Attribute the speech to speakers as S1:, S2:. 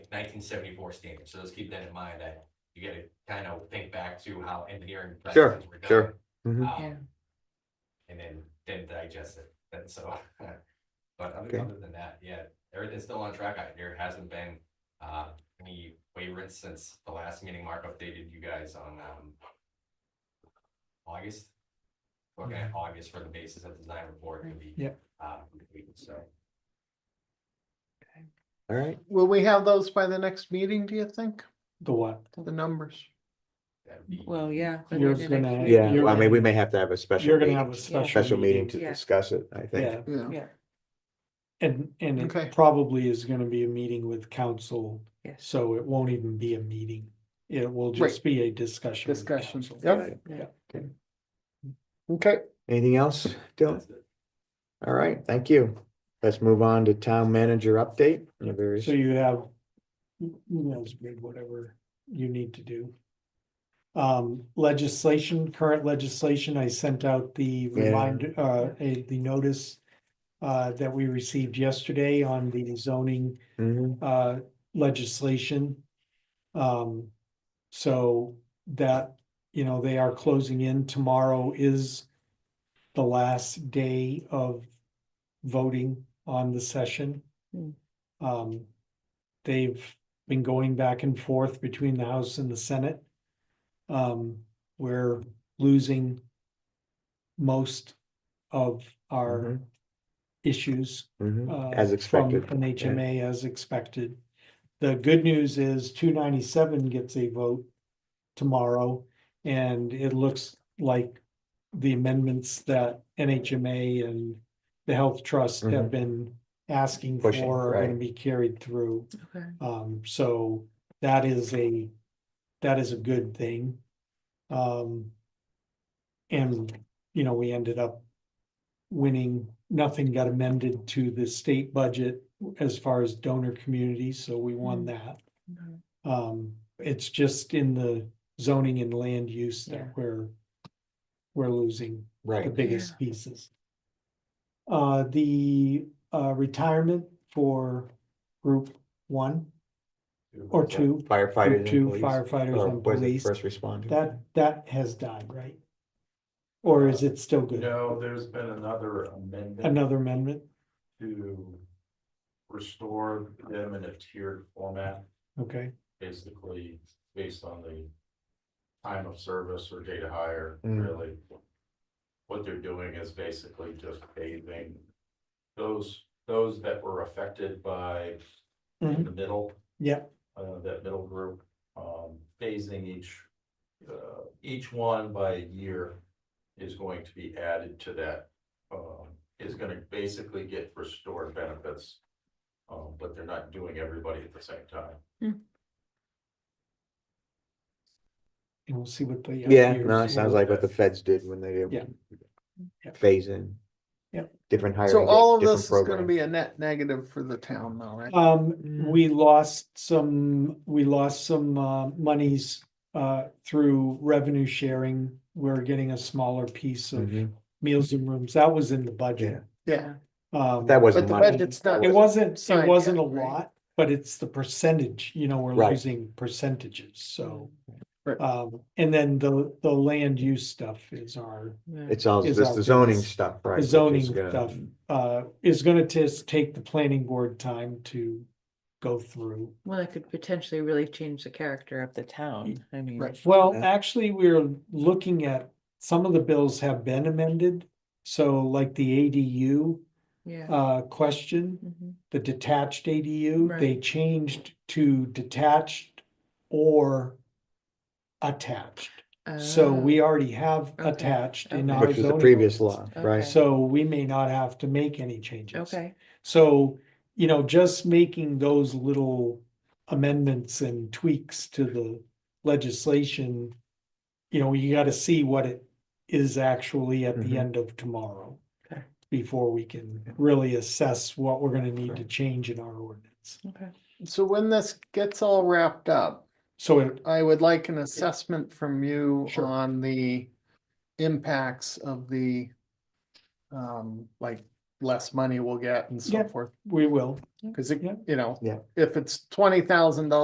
S1: nineteen seventy-four standard, so let's keep that in mind, that you gotta kind of think back to how engineering.
S2: Sure,
S1: practices were done,
S2: sure. Mhm.
S1: um,
S3: Yeah.
S1: And then, then digest it, and so, but other
S2: Okay.
S1: other than that, yeah, everything's still on track, I- there hasn't been, uh, any waivers since the last meeting Mark updated you guys on, um, August. Looking at August for the basis of design report to be.
S4: Yep.
S1: Uh, completed, so.
S2: All right,
S5: Will we have those by the next meeting, do you think?
S4: The what?
S5: The numbers?
S1: that would be-
S3: Well, yeah. but
S4: You're
S3: the next
S4: gonna-
S3: week.
S2: yeah,
S4: You're
S2: well, I mean, we
S4: gonna-
S2: may have to have a special,
S4: You're gonna
S2: meeting-
S4: have a special.
S2: special meeting to
S3: Yeah.
S2: discuss it, I
S4: Yeah,
S2: think.
S5: Yeah.
S3: Yeah,
S4: and, and
S5: Okay.
S4: it probably is gonna be a meeting with council,
S3: yes.
S4: so it won't even be a meeting. It will just be a discussion. with
S5: Discussion,
S4: council.
S5: yep.
S4: Yeah.
S5: Okay.
S2: Anything else, Dylan?
S1: That's it.
S2: All right, thank you. Let's move on to town manager update. Yeah, there is-
S4: So you have emails, grid, whatever you need to do. Um, legislation, current legislation, I sent out the
S2: Yeah.
S4: reminder, uh, a- the notice uh, that we received yesterday on the zoning
S2: Mhm.
S4: uh, legislation. Um, so that, you know, they are closing in. Tomorrow is the last day of voting on the session.
S3: Hmm.
S4: Um, they've been going back and forth between the House and the Senate. Um, we're losing most of our
S2: Mhm.
S4: issues uh,
S2: Mhm. As
S4: from
S2: expected.
S4: An HMA as expected. The good news is two ninety-seven gets a vote tomorrow. And it looks like the amendments that NHMA and the Health Trust
S2: Mhm.
S4: have been asking
S2: Pushing,
S4: for are gonna
S2: right.
S4: be carried through.
S3: Okay.
S4: Um, so that is a, that is a good thing. Um. And, you know, we ended up winning, nothing got amended to the state budget as far as donor communities, so we won
S3: Mm.
S4: that.
S3: Okay.
S4: Um, it's just in the zoning and land use
S3: Yeah.
S4: that we're, we're losing the
S2: Right.
S4: biggest pieces. Uh, the, uh, retirement for group one or two,
S2: Firefighters.
S4: group
S2: and
S4: two
S2: police,
S4: firefighters
S2: or
S4: and
S2: was it
S4: police,
S2: First responders.
S4: that, that has died, right? Or is it still good?
S6: No, there's been another amendment
S4: Another amendment?
S6: to restore them in a tiered format,
S4: Okay,
S6: basically based on the time of service or data hire,
S2: Mm.
S6: really. What they're doing is basically just paving those, those that were affected by
S4: Mhm.
S6: the middle
S4: yeah,
S6: uh, that middle group, um, phasing each, uh, each one by a year is going to be added to that, um, is gonna basically get restored benefits. Um, but they're not doing everybody at the same time.
S4: and we'll see what the. uh,
S2: Yeah,
S4: years
S2: no, it sounds
S4: will-
S2: like what the feds did when they
S4: Yeah.
S2: did
S4: Yeah.
S2: phase in.
S4: Yeah.
S2: Different hiring.
S5: So all of
S2: different
S5: this is gonna
S2: programs.
S5: be a net negative for the town though, right?
S4: Um,
S2: Mm.
S4: we lost some, we lost some, uh, monies, uh, through revenue sharing. We're getting a smaller piece of
S2: Mhm.
S4: meals and rooms. That was in the budget.
S5: Yeah,
S4: Um,
S2: That
S5: but
S2: wasn't
S5: the
S2: money.
S5: budget's not.
S4: it wasn't,
S5: signed
S4: it
S5: yet,
S4: wasn't a
S5: right?
S4: lot, but it's the percentage, you know, we're
S2: Right.
S4: losing percentages, so.
S5: Right.
S4: Um, and then the, the land use stuff is our,
S3: Yeah.
S2: It's all,
S4: is
S2: it's
S4: our
S2: the zoning
S4: biggest-
S2: stuff, right?
S4: the
S2: which is
S4: zoning
S2: gonna-
S4: stuff, uh, is gonna just take the planning board time to go through.
S3: Well, that could potentially really change the character of the town, I mean.
S5: Right.
S4: Well,
S2: Yeah.
S4: actually, we're looking at, some of the bills have been amended. So like the ADU
S3: Yeah.
S4: uh question,
S3: Mhm.
S4: the detached ADU,
S3: Right.
S4: they changed to detached or attached. So
S3: Ah,
S4: we already have
S3: Okay,
S4: attached in
S3: okay.
S4: our
S2: Which was the
S4: zoning
S2: previous law,
S4: ordinance.
S2: right?
S3: Okay.
S4: So we may not have to make any changes.
S3: Oh, Okay,
S4: So, you know, just making those little amendments and tweaks to the legislation. You know, you gotta see what it is actually at the
S2: Mhm.
S4: end of tomorrow.
S3: Okay.
S4: Before we can really assess what we're gonna need to
S2: Right.
S4: change in our ordinance.
S3: okay.
S5: So when this gets all wrapped up,
S4: So it,
S5: I would like an assessment from you
S4: Sure.
S5: on the impacts of the um, like less money we'll get and so
S4: Yeah.
S5: forth.
S4: we will.
S5: Cause it,
S4: Yeah.
S5: you know,
S2: Yeah.
S5: if it's twenty thousand dollars